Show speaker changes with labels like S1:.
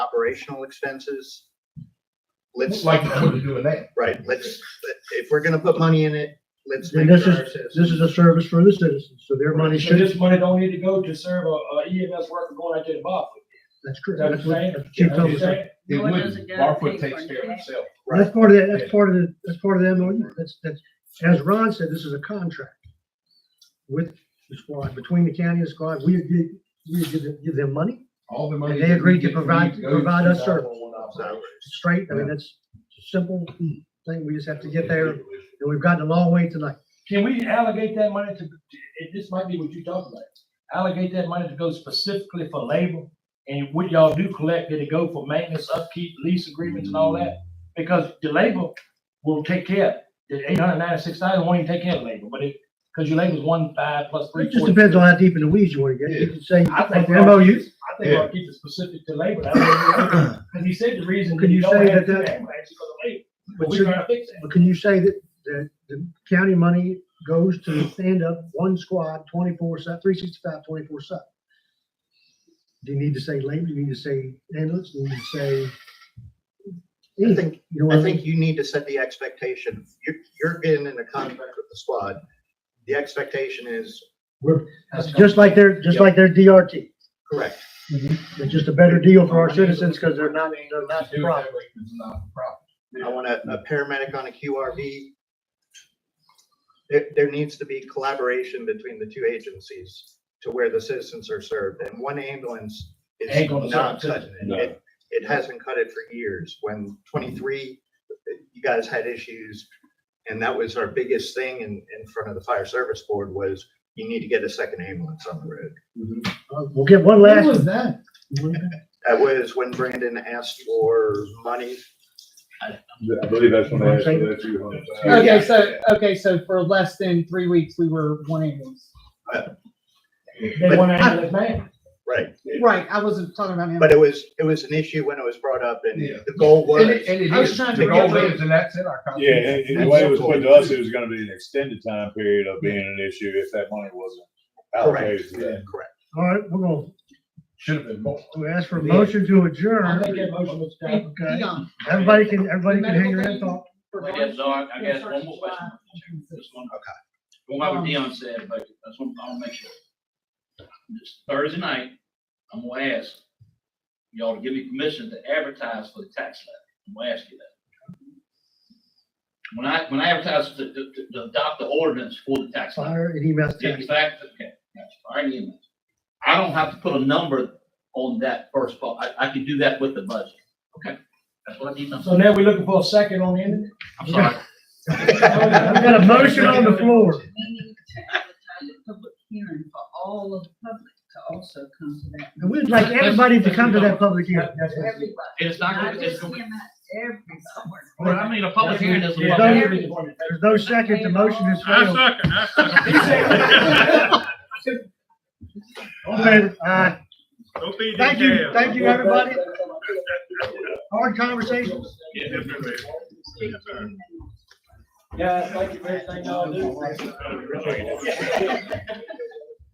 S1: operational expenses. Let's,
S2: Like what you're doing now.
S1: right, let's, if we're gonna put money in it, let's
S3: And
S1: make
S3: this
S1: sure. our
S3: is-
S1: citizens-
S3: This is a service for the citizens, so their money
S4: So
S3: should,
S4: this money don't need to go to serve a, a EMS worker going out to the box.
S3: that's correct. That's what- that's what Chief
S4: You know what I'm
S3: Thomas said.
S4: saying?
S2: It
S5: No, it
S2: wouldn't.
S5: doesn't gotta
S2: Barfoot
S5: pay for
S2: takes care of
S5: that.
S2: himself.
S3: That's part of that, that's part of the, that's part of the MOU. That's, that's, as Ron said, this is a contract with the squad, between the county and the squad. We give, we give them, give them money,
S2: All the money.
S3: And they
S2: that we
S3: agreed to
S2: get from
S3: provide-
S2: you goes
S3: provide us service.
S2: 911 operations.
S3: It's straight. I mean, that's a simple thing. We just have to get there and we've gotten a long way tonight.
S4: Can we allocate that money to, it- this might be what you talked about, allocate that money to go specifically for labor? And what y'all do collect, did it go for maintenance, upkeep, lease agreements and all that? Because the labor will take care, of it. the eight hundred ninety-six thousand won't even take care of labor, but it, because your labor's one five plus three.
S3: It just
S4: forty.
S3: depends on how deep in the weeds you want to get. You can say,
S4: I
S3: like
S4: think.
S3: the MOU,
S4: I think I'll keep it specific to labor. Because he said the reason.
S3: Could
S4: that
S3: you
S4: don't
S3: say
S4: have
S3: that
S4: two
S3: that-
S4: ambulances is 'cause of labor. But
S3: but
S4: we're
S3: should-
S4: trying to fix that.
S3: But can you say that, that the county money goes to stand up one squad twenty-four seven, three sixty-five, twenty-four seven? Do you need to say labor? Do you need to say ambulance? Do you need to say?
S1: I think,
S3: anything? You know what
S1: I
S3: I mean?
S1: think you need to set the expectation. You're, you're getting in a contract with the squad. The expectation is
S3: It's Just like their, just like their DRT.
S1: correct.
S3: It's just a better deal for our citizens because they're not, they're not
S2: Do
S3: the
S2: it
S3: problem.
S2: that way, it's not a problem.
S1: I want a, a paramedic on a QRV. There, there needs to be collaboration between the two agencies to where the citizens are served, and one ambulance is
S4: Ain't gonna
S1: not
S4: serve
S1: cutting it. it. It hasn't cut it for years. When twenty-three, you guys had issues, and that was our biggest thing in, in front of the fire service board was you need to get a second ambulance on the road.
S3: Uh, We'll get one
S2: When
S3: last.
S2: was that?
S1: That was when Brandon asked for money.
S6: I believe that's when they asked for that two hundred thousand.
S7: Okay, so, okay, so for less than three weeks, we were one ambulance.
S4: They want to handle this man.
S1: Right.
S7: Right, I wasn't talking about
S1: But
S7: ambulance.
S1: it was, it was an issue when it was brought up, and
S2: Yeah.
S1: the goal was.
S2: And it, and it
S7: I was
S2: is,
S7: trying
S1: to
S2: the goal
S1: get-
S2: is, and that's in our
S6: Yeah,
S2: contract.
S6: and, and the way it was put to us, it was gonna be an extended time period of being an issue if that money wasn't allocated to that.
S1: Correct.
S3: All right, we're gonna,
S2: Should have been more.
S3: we ask for a motion to
S4: I
S3: adjourn.
S4: make that motion, Mr. Chairman.
S7: Hey,
S3: Okay.
S7: Dion,
S3: Everybody can, everybody uh, can hang around and talk.
S8: I guess, Doc, I guess one more question. This one. Okay. Going by what Dion said, but that's one, I'll make sure. This Thursday night, I'm gonna ask y'all to give me permission to advertise for the tax levy. I'm gonna ask you that. When I, when I advertise to, to, to- to adopt the ordinance for the tax levy.
S3: Fire and EMS
S8: Yeah,
S3: tax.
S8: Exactly, okay, that's fine, EMS. I don't have to put a number on that first part, I, I can do that with the budget. Okay, that's what I need, I'm
S4: So now we're looking for a second on the end.
S8: I'm sorry.
S3: We got a motion on the floor.
S5: Meaning to advertise a public hearing for all of the public to also come to that.
S3: And we'd like everybody to come to that public hearing.
S5: Everybody,
S8: It's not
S5: not
S8: gonna, it's
S5: just
S8: gonna.
S5: him, everybody.
S8: Well, I mean, a public hearing is a
S4: Yeah,
S8: public
S3: don't-
S8: hearing.
S4: everything.
S3: There's no second, the motion is failed.
S4: He said-
S3: All in favor? Aye. uh, Thank you, thank you, everybody. Hard conversation.
S4: Guys, thank you for everything y'all do.